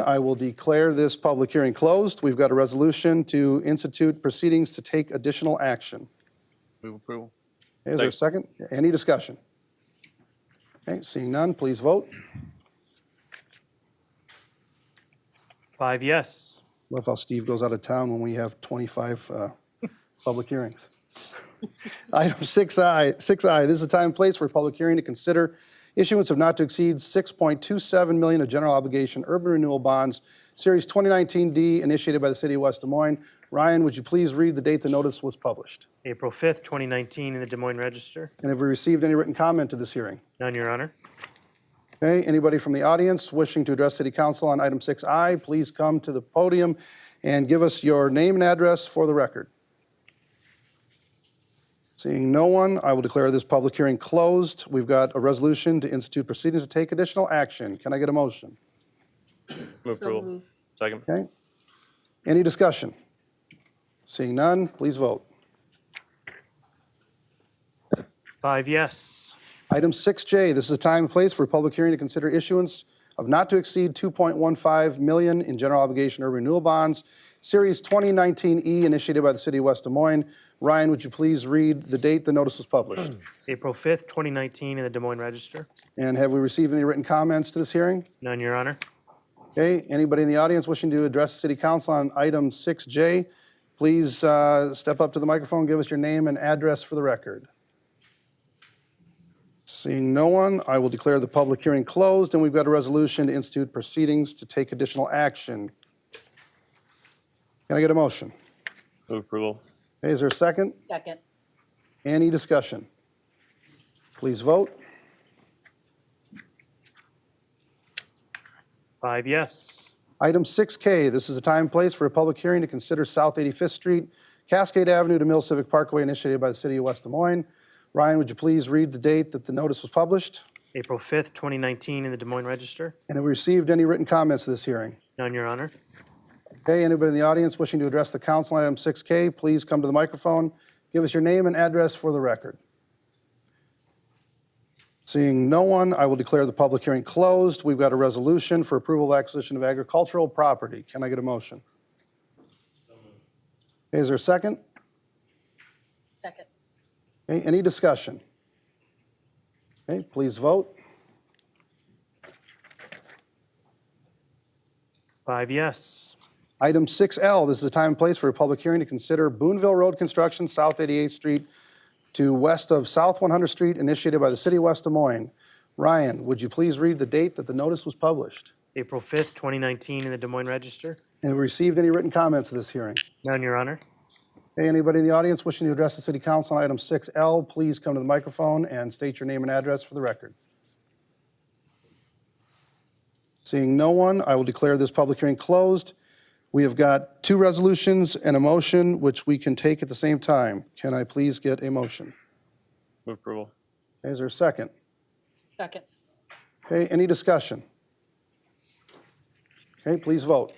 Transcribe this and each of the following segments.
I will declare this public hearing closed. We've got a resolution to institute proceedings to take additional action. Move approval. Is there a second? Any discussion? Okay, seeing none, please vote. Five yes. Love how Steve goes out of town when we have 25 uh, public hearings. Item 6I, 6I, this is a time and place for a public hearing to consider issuance of not to exceed 6.27 million of general obligation urban renewal bonds, Series 2019D, initiated by the city of West Des Moines. Ryan, would you please read the date the notice was published? April 5th, 2019, in the Des Moines Register. And have we received any written comment to this hearing? None, Your Honor. Okay, anybody from the audience wishing to address City Council on item 6I, please come to the podium and give us your name and address for the record. Seeing no one, I will declare this public hearing closed. We've got a resolution to institute proceedings to take additional action. Can I get a motion? Move So approval. move. Second. Okay? Any discussion? Seeing none, please vote. Five yes. Item 6J, this is a time and place for a public hearing to consider issuance of not to exceed 2.15 million in general obligation urban renewal bonds, Series 2019E, initiated by the city of West Des Moines. Ryan, would you please read the date the notice was published? April 5th, 2019, in the Des Moines Register. And have we received any written comments to this hearing? None, Your Honor. Okay, anybody in the audience wishing to address the city council on item 6J, please uh, step up to the microphone, give us your name and address for the record. Seeing no one, I will declare the public hearing closed, and we've got a resolution to institute proceedings to take additional action. Can I get a motion? Move approval. Okay, Is there a second? Second. Any discussion? Please vote. Five yes. Item 6K, this is a time and place for a public hearing to consider South 85th Street, Cascade Avenue to Mill Civic Parkway initiated by the city of West Des Moines. Ryan, would you please read the date that the notice was published? April 5th, 2019, in the Des Moines Register. And have we received any written comments to this hearing? None, Your Honor. Okay, anybody in the audience wishing to address the council on item 6K, please come to the microphone, give us your name and address for the record. Seeing no one, I will declare the public hearing closed. We've got a resolution for approval of acquisition of agricultural property. Can I get a motion? Okay, Is there a second? Second. Okay, any discussion? Okay, please vote. Five yes. Item 6L, this is a time and place for a public hearing to consider Boonville Road construction, South 88th Street to west of South 100th Street, initiated by the city of West Des Moines. Ryan, would you please read the date that the notice was published? April 5th, 2019, in the Des Moines Register. And we received any written comments to this hearing? None, Your Honor. Hey, anybody in the audience wishing to address the city council on item 6L, please come to the microphone and state your name and address for the record. Seeing no one, I will declare this public hearing closed. We have got two resolutions and a motion, which we can take at the same time. Can I please get a motion? Move approval. Is there a second? Second. Okay, any discussion? Okay, please vote.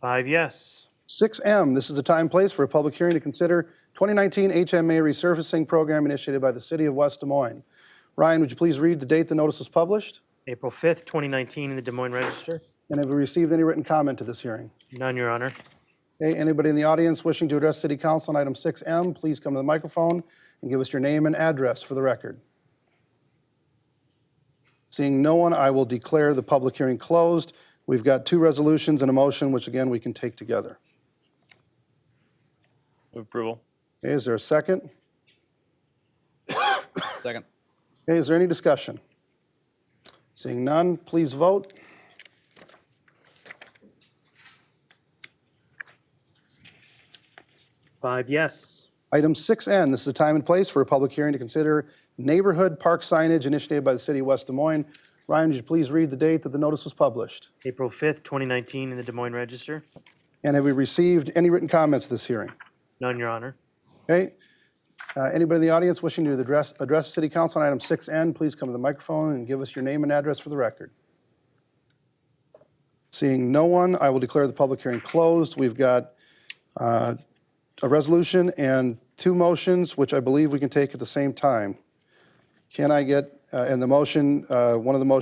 Five yes. 6M, this is the time and place for a public hearing to consider 2019 HMA resurfacing program initiated by the city of West Des Moines. Ryan, would you please read the date the notice was published? April 5th, 2019, in the Des Moines Register. And have we received any written comment to this hearing? None, Your Honor. Okay, anybody in the audience wishing to address city council on item 6M, please come to the microphone and give us your name and address for the record. Seeing no one, I will declare the public hearing closed. We've got two resolutions and a motion, which again, we can take together. Move approval. Okay, is there a second? Second. Okay, is there any discussion? Seeing none, please vote. Five yes. Item 6N, this is the time and place for a public hearing to consider neighborhood park signage initiated by the city of West Des Moines. Ryan, would you please read the date that the notice was published? April 5th, 2019, in the Des Moines Register. And have we received any written comments to this hearing? None, Your Honor. Okay? Uh, Anybody in the audience wishing to address, address city council on item 6N, please come to the microphone and give us your name and address for the record. Seeing no one, I will declare the public hearing closed. We've got uh, a resolution and two motions, which I believe we can take at the same time. Can I get, uh, and the motion, uh, one of the motions